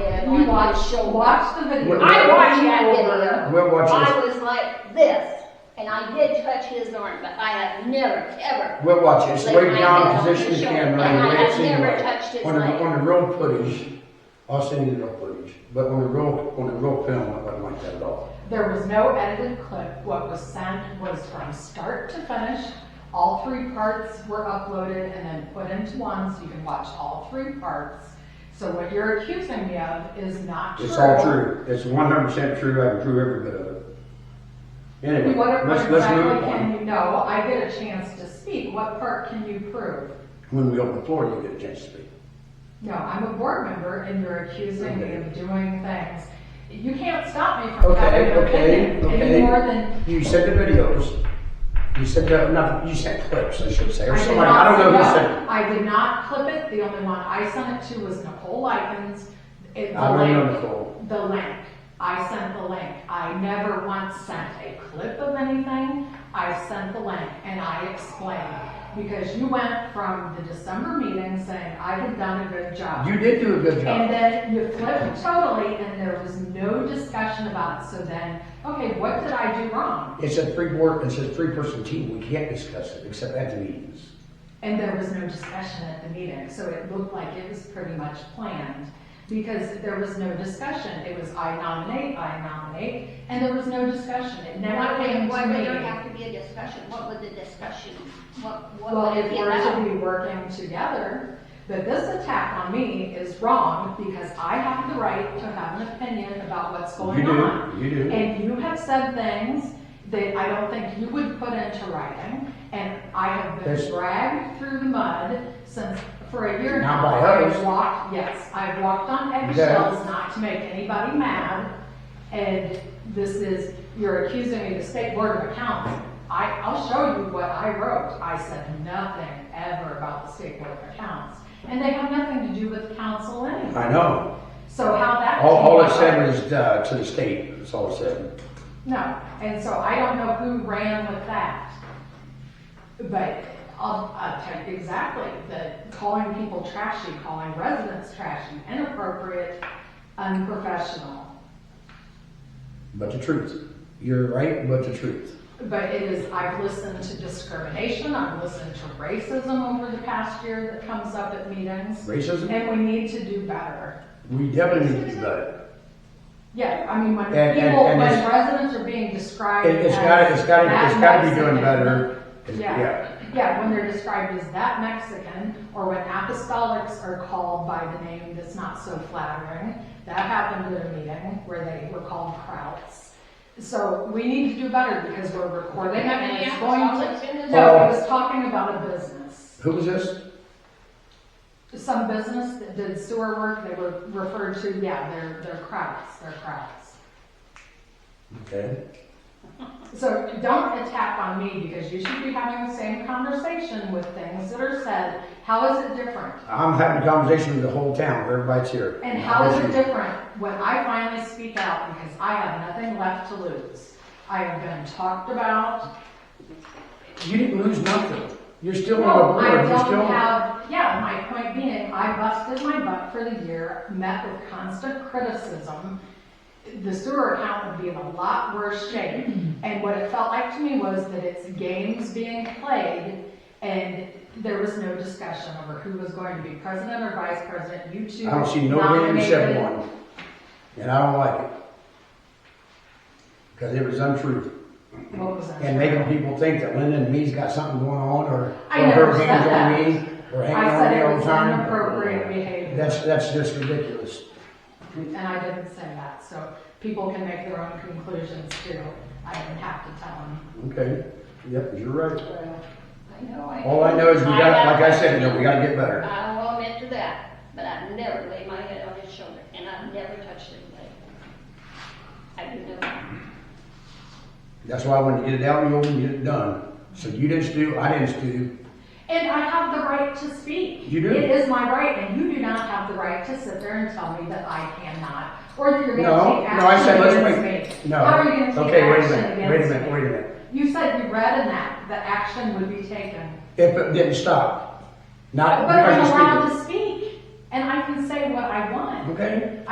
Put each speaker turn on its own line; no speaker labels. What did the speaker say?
it
You
on my
watch,
shoulder.
watch the video.
What-
I watched that video.
We're watching,
I was like this, and I did touch his arm, but I have never, ever.
we're watching, it's way
laid my hand
beyond
on
position of
his
the
shoulder,
camera,
And
and the way
I
it's
have never
seen.
touched his
On the, on
leg.
the real footage, I'll send you the real footage, but on the real, on the real film, it wasn't like that at all.
There was no edited clip. What was sent was from start to finish. All three parts were uploaded and then put into one, so you can watch all three parts. So what you're accusing me of is not true.
It's all true, it's one hundred percent true, I can prove every bit of it. Anyway,
What
let's,
what
let's move
exactly
on.
can you know? I get a chance to speak. What part can you prove?
When we open the floor, you get a chance to speak.
No, I'm a board member and you're accusing me
Okay.
of doing things. You can't stop me from
Okay,
having an
okay,
opinion
okay.
any more than.
You sent the videos, you sent the, not, you sent clips, I should say, or
I did
somebody,
not
I don't know who
see
sent it.
that. I did not clip it. The only one I sent it to was Nicole Likens. It- the
I don't know
link-
Nicole.
The link. I sent the link. I never once sent a clip of anything. I sent the link and I explained. Because you went from the December meeting saying I had done a good job.
You did do a good
And
job.
then you flipped totally, and there was no discussion about it, so then, okay, what did I do wrong?
It's a three board, it's a three person team, we can't discuss it except at the meetings.
And there was no discussion at the meeting, so it looked like it was pretty much planned, because there was no discussion, it was I nominate, I nominate, and there was no discussion, it never
Why
came
would,
to
why would there
me.
have to be a discussion? What would the discussion, what,
Well,
what would
if
it be
we're to
about?
be working together, but this attack on me is wrong, because I have the right to have an opinion about what's
You
going on.
do, you do.
And you have said things that I don't think you would put into writing, and I have
There's-
been dragged through the mud since, for a year
Not
now.
by
I've
us.
walked, yes, I've walked on
Yeah.
eggshells not to make anybody mad, and this is, you're accusing me of the state board of accounts. I, I'll show you what I wrote. I said nothing ever about the state board of accounts, and they have nothing to do with council anyway.
I know.
So how that.
All, all it
came
said
about-
was, uh, to the state, that's all it said.
No, and so I don't know who ran with that. But I'll, I'll tell you exactly, the calling people trashy, calling residents trashy, inappropriate, unprofessional.
But the truth, you're right, but the truth.
But it is, I've listened to discrimination, I've listened to racism over the past year that comes up at meetings,
Racism,
and we need to do better.
we definitely need to do better.
Yeah, I mean, when
And- and-
people, when
and it's-
residents are being described
It-
as.
It's gotta, it's gotta, it's
that
gotta be
Mexican,
doing better. It's-
Yeah. Yeah, when they're described as that Mexican, or when apostolics are called by the name that's not so flattering. That happened at a meeting where they were called krauts. So we need to do better because we're recording it and it's going to. No, I was talking about a business.
Who was this?
Some business that did sewer work, they were referred to, yeah, they're, they're krauts, they're krauts.
Okay.
So don't attack on me because you should be having the same conversation with things that are said. How is it different?
I'm having a conversation with the whole town, everybody's here.
And how is it different when I finally speak out because I have nothing left to lose? I have been talked about.
You didn't lose nothing. You're still
No,
on
I
the board, you're
don't
still.
have, yeah, my point being, I busted my butt for the year, met with constant criticism. The sewer account would be in a lot worse shape.
Mm-hmm.
And what it felt like to me was that it's games being played and there was no discussion over who was going to be president or vice president. You two
I don't see nobody except
nominated-
one. And I don't like it. Because it was untrue.
What was that?
and making people think that Linda and me's got something going on, or,
I
or her
never said
hands on
that.
me, or hanging
I
on
said
me
it
all the
was
time.
inappropriate behavior.
That's, that's just ridiculous.
And I didn't say that, so people can make their own conclusions too. I didn't have to tell them.
Okay, yep, you're right.
I know, I.
All I know is we
I
got,
have-
like I said, that we gotta get better.
I will admit to that, but I've never laid my head on his shoulder, and I've never touched his leg. I do know that.
That's why I wanted to get it out in the open, get it done. So you didn't do, I didn't do,
And I have the right to speak.
You do.
It is my right, and you do not have the right to sit there and tell me that I cannot, or that you're
no,
gonna
no,
take
I said,
action
let's
against
wait,
me.
no.
How are you gonna take
Okay, wait a
action
minute, wait a
against
minute, wait a
me?
minute.
You said you read in that, that action would be taken.
If it didn't stop, not
But I'm
because you
allowed to
speak
speak, and I can say what I want.
it. Okay?